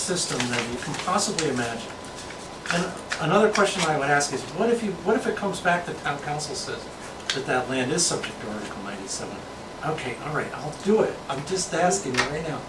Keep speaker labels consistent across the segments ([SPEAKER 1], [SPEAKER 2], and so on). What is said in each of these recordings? [SPEAKER 1] system than you can possibly imagine. And another question I would ask is, what if you, what if it comes back that town council says that that land is subject to Article ninety-seven? Okay, all right, I'll do it, I'm just asking you right now.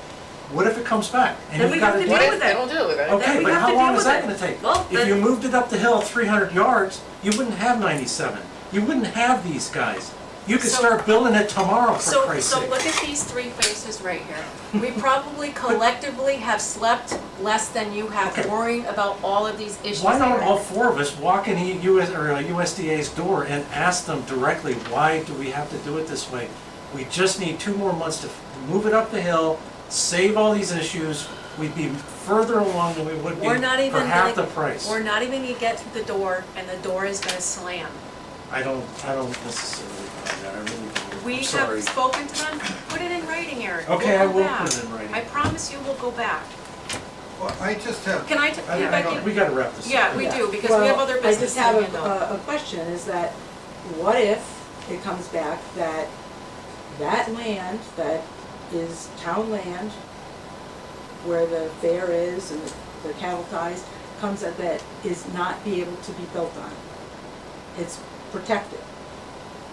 [SPEAKER 1] What if it comes back? and
[SPEAKER 2] Then
[SPEAKER 1] you've
[SPEAKER 2] we
[SPEAKER 1] gotta
[SPEAKER 2] have to
[SPEAKER 1] do it?
[SPEAKER 2] deal with it.
[SPEAKER 3] We'll deal with it.
[SPEAKER 1] Okay,
[SPEAKER 2] we
[SPEAKER 1] but
[SPEAKER 2] have to
[SPEAKER 1] how
[SPEAKER 2] deal
[SPEAKER 1] long is
[SPEAKER 2] with
[SPEAKER 1] that
[SPEAKER 2] it.
[SPEAKER 1] gonna take?
[SPEAKER 2] Well,
[SPEAKER 1] If
[SPEAKER 2] then-
[SPEAKER 1] you moved it up the hill three hundred yards, you wouldn't have ninety-seven. You wouldn't have these guys. You could
[SPEAKER 3] So-
[SPEAKER 1] start building it tomorrow, for
[SPEAKER 3] So,
[SPEAKER 1] Christ's
[SPEAKER 3] so
[SPEAKER 1] sake.
[SPEAKER 3] look at these three faces right here. We probably collectively have slept less than you have
[SPEAKER 1] Okay.
[SPEAKER 3] worrying about all of these issues.
[SPEAKER 1] Why
[SPEAKER 3] that
[SPEAKER 1] don't
[SPEAKER 3] are-
[SPEAKER 1] all four of us walk in E- US, or uh, USDA's door and ask them directly, why do we have to do it this way? We just need two more months to f- move it up the hill, save all these issues, we'd be further along than we would be
[SPEAKER 3] We're not even
[SPEAKER 1] for half the
[SPEAKER 3] gonna-
[SPEAKER 1] price.
[SPEAKER 3] We're not even gonna get to the door and the door is gonna slam.
[SPEAKER 1] I don't, I don't necessarily find that, I really don't,
[SPEAKER 3] We
[SPEAKER 1] I'm
[SPEAKER 3] have
[SPEAKER 1] sorry.
[SPEAKER 3] spoken to them, put it in writing, Eric.
[SPEAKER 1] Okay, I
[SPEAKER 3] We'll go
[SPEAKER 1] will
[SPEAKER 3] back.
[SPEAKER 1] put it in writing.
[SPEAKER 3] I promise you we'll go back.
[SPEAKER 4] Well, I just have,
[SPEAKER 3] Can I, t-
[SPEAKER 4] I- I
[SPEAKER 3] Becky?
[SPEAKER 4] don't-
[SPEAKER 1] We gotta wrap this up.
[SPEAKER 3] Yeah, we do, because we have other business to
[SPEAKER 5] Well, I just
[SPEAKER 3] handle.
[SPEAKER 5] have a- a, a question, is that what if it comes back that that land that is town land, where the fair is and the cattle ties, comes at that is not be able to be built on? It's protected.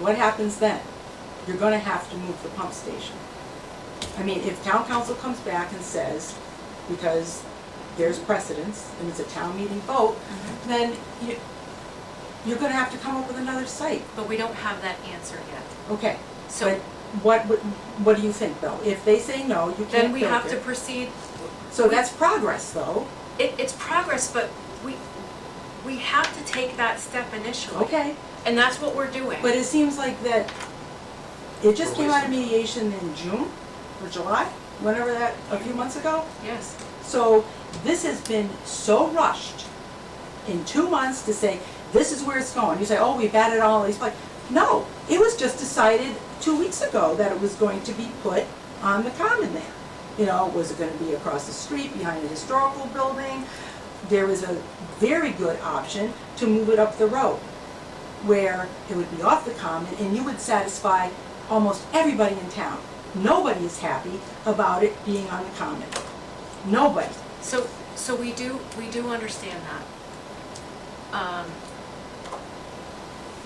[SPEAKER 5] What happens then? You're gonna have to move the pump station. I mean, if town council comes back and says, because there's precedence, and it's a town meeting vote, then you, you're gonna have to come up with another site.
[SPEAKER 3] But we don't have that answer yet.
[SPEAKER 5] Okay,
[SPEAKER 3] So.
[SPEAKER 5] so what, would- what do you think though? If they say no, you can't
[SPEAKER 3] Then we
[SPEAKER 5] build
[SPEAKER 3] have to
[SPEAKER 5] it.
[SPEAKER 3] proceed,
[SPEAKER 5] So that's progress though,
[SPEAKER 3] it, it's progress, but we, we have to take that step initially.
[SPEAKER 5] okay.
[SPEAKER 3] And that's what we're doing.
[SPEAKER 5] But it seems like that, it just came out of mediation in June or July, whenever that, a few months ago.
[SPEAKER 3] Yes,
[SPEAKER 5] So this has been so rushed in two months to say, this is where it's going. You say, oh, we batted all these, like, no, it was just decided two weeks ago that it was going to be put on the common there. You know, was it gonna be across the street, behind the historical building? There was a very good option to move it up the road where it would be off the common and you would satisfy almost everybody in town. Nobody is happy about it being on the common. Nobody.
[SPEAKER 3] so, so we do, we do understand that. Um,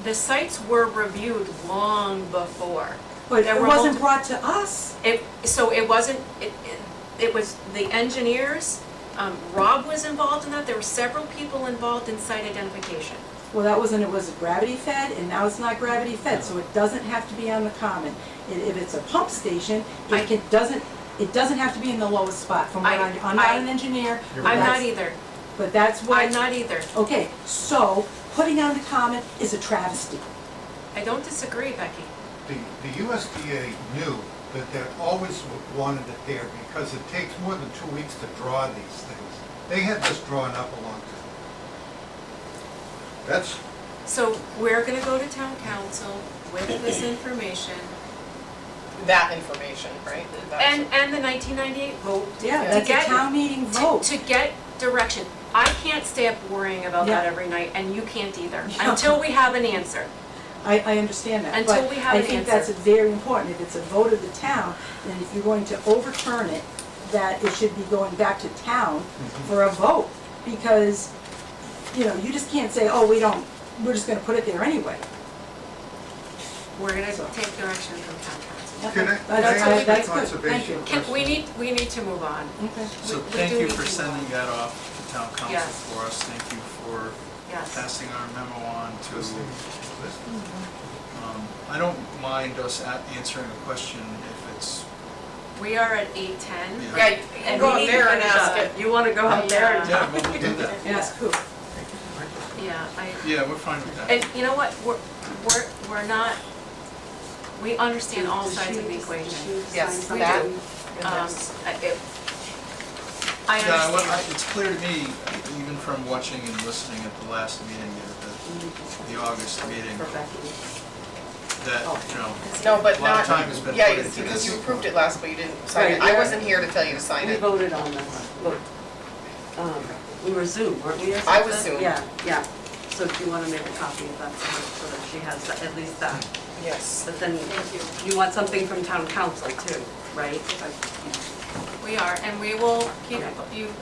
[SPEAKER 3] The sites were reviewed long before.
[SPEAKER 5] But
[SPEAKER 3] There
[SPEAKER 5] it
[SPEAKER 3] were multi-
[SPEAKER 5] wasn't brought to us.
[SPEAKER 3] It, so it wasn't, it, it- it was the engineers, um, Rob was involved in that, there were several people involved in site identification.
[SPEAKER 5] Well, that wasn't, it was gravity fed and now it's not gravity fed, so it doesn't have to be on the common. I- If it's a pump station,
[SPEAKER 3] I-
[SPEAKER 5] it can, doesn't, it doesn't have to be in the lowest spot from what
[SPEAKER 3] I-
[SPEAKER 5] I, I'm not
[SPEAKER 3] I-
[SPEAKER 5] an engineer.
[SPEAKER 3] I'm not
[SPEAKER 5] that's-
[SPEAKER 3] either,
[SPEAKER 5] But that's
[SPEAKER 3] I'm
[SPEAKER 5] what,
[SPEAKER 3] not either.
[SPEAKER 5] okay, so putting on the common is a travesty.
[SPEAKER 3] I don't disagree, Becky.
[SPEAKER 4] the, the USDA knew that they always wanted it there because it takes more than two weeks to draw these things. They had this drawn up a long time. That's,
[SPEAKER 3] So we're gonna go to town council with this information
[SPEAKER 6] that information, right? That's-
[SPEAKER 3] and, and the nineteen ninety-eight vote
[SPEAKER 5] Yeah,
[SPEAKER 6] To
[SPEAKER 5] that's
[SPEAKER 3] get-
[SPEAKER 5] a town meeting
[SPEAKER 3] to,
[SPEAKER 5] vote.
[SPEAKER 3] to get direction. I can't stay up worrying about that
[SPEAKER 5] Yeah.
[SPEAKER 3] every night and you can't either,
[SPEAKER 5] Yeah.
[SPEAKER 3] until we have an answer.
[SPEAKER 5] I, I understand that,
[SPEAKER 3] Until
[SPEAKER 5] but
[SPEAKER 3] we have
[SPEAKER 5] I
[SPEAKER 3] an
[SPEAKER 5] think
[SPEAKER 3] answer.
[SPEAKER 5] that's very important, if it's a vote of the town, and if you're going to overturn it, that it should be going back to town for a vote, because, you know, you just can't say, oh, we don't, we're just gonna put it there anyway.
[SPEAKER 3] We're gonna
[SPEAKER 5] So.
[SPEAKER 3] take direction from town council.
[SPEAKER 5] Okay,
[SPEAKER 4] can I,
[SPEAKER 5] that-
[SPEAKER 4] can I
[SPEAKER 5] that's-
[SPEAKER 4] ask
[SPEAKER 5] that's
[SPEAKER 4] the
[SPEAKER 5] good.
[SPEAKER 4] conservation
[SPEAKER 3] Can, we
[SPEAKER 4] question?
[SPEAKER 3] need, we need to move on,
[SPEAKER 5] Thank you. Okay.
[SPEAKER 7] So
[SPEAKER 3] We- we
[SPEAKER 7] thank
[SPEAKER 3] do
[SPEAKER 7] you
[SPEAKER 3] need
[SPEAKER 7] for
[SPEAKER 3] to move
[SPEAKER 7] sending
[SPEAKER 3] on.
[SPEAKER 7] that off to town council
[SPEAKER 3] Yes.
[SPEAKER 7] for us. Thank you for
[SPEAKER 3] yes.
[SPEAKER 7] passing our memo on to,
[SPEAKER 4] This thing- this thing.
[SPEAKER 7] um, I don't mind us a- answering a question if it's,
[SPEAKER 3] We are at eight ten.
[SPEAKER 7] Yeah.
[SPEAKER 6] Yeah, you can
[SPEAKER 2] And
[SPEAKER 6] go
[SPEAKER 2] we
[SPEAKER 6] up
[SPEAKER 2] need to
[SPEAKER 6] there and
[SPEAKER 2] finish
[SPEAKER 6] ask
[SPEAKER 2] up.
[SPEAKER 6] it.
[SPEAKER 2] You wanna go up there and
[SPEAKER 7] yeah, well, we'll do that.
[SPEAKER 5] Yes, cool.
[SPEAKER 3] Yeah, I,
[SPEAKER 7] Yeah, we're fine with that.
[SPEAKER 3] and you know what, we're, we're, we're not, we understand all sides of the equation.
[SPEAKER 6] Yes,
[SPEAKER 3] We
[SPEAKER 6] that.
[SPEAKER 3] do. Um,
[SPEAKER 6] Yes.
[SPEAKER 3] I- it- I
[SPEAKER 7] Yeah, I wa- I-
[SPEAKER 3] understand.
[SPEAKER 7] It's clear to me, even from watching and listening at the last meeting, uh, the- the, the August meeting, that, you know,
[SPEAKER 6] No, but
[SPEAKER 7] A lot
[SPEAKER 6] not,
[SPEAKER 7] of time has been
[SPEAKER 6] yeah,
[SPEAKER 7] put into
[SPEAKER 6] because you
[SPEAKER 7] this.
[SPEAKER 6] approved it last, but you didn't sign it.
[SPEAKER 2] Right,
[SPEAKER 6] I
[SPEAKER 2] yeah.
[SPEAKER 6] wasn't here to tell you to sign
[SPEAKER 2] We
[SPEAKER 6] it.
[SPEAKER 2] voted on this, look, um, we were Zoom, weren't we? or
[SPEAKER 6] I was
[SPEAKER 2] something?
[SPEAKER 6] Zoom.
[SPEAKER 2] Yeah, yeah, so if you wanna make a copy of that, so that she has that- at least that,
[SPEAKER 6] Yes.
[SPEAKER 2] but then you want something from town council too, right? If I-
[SPEAKER 3] We are, and we will keep you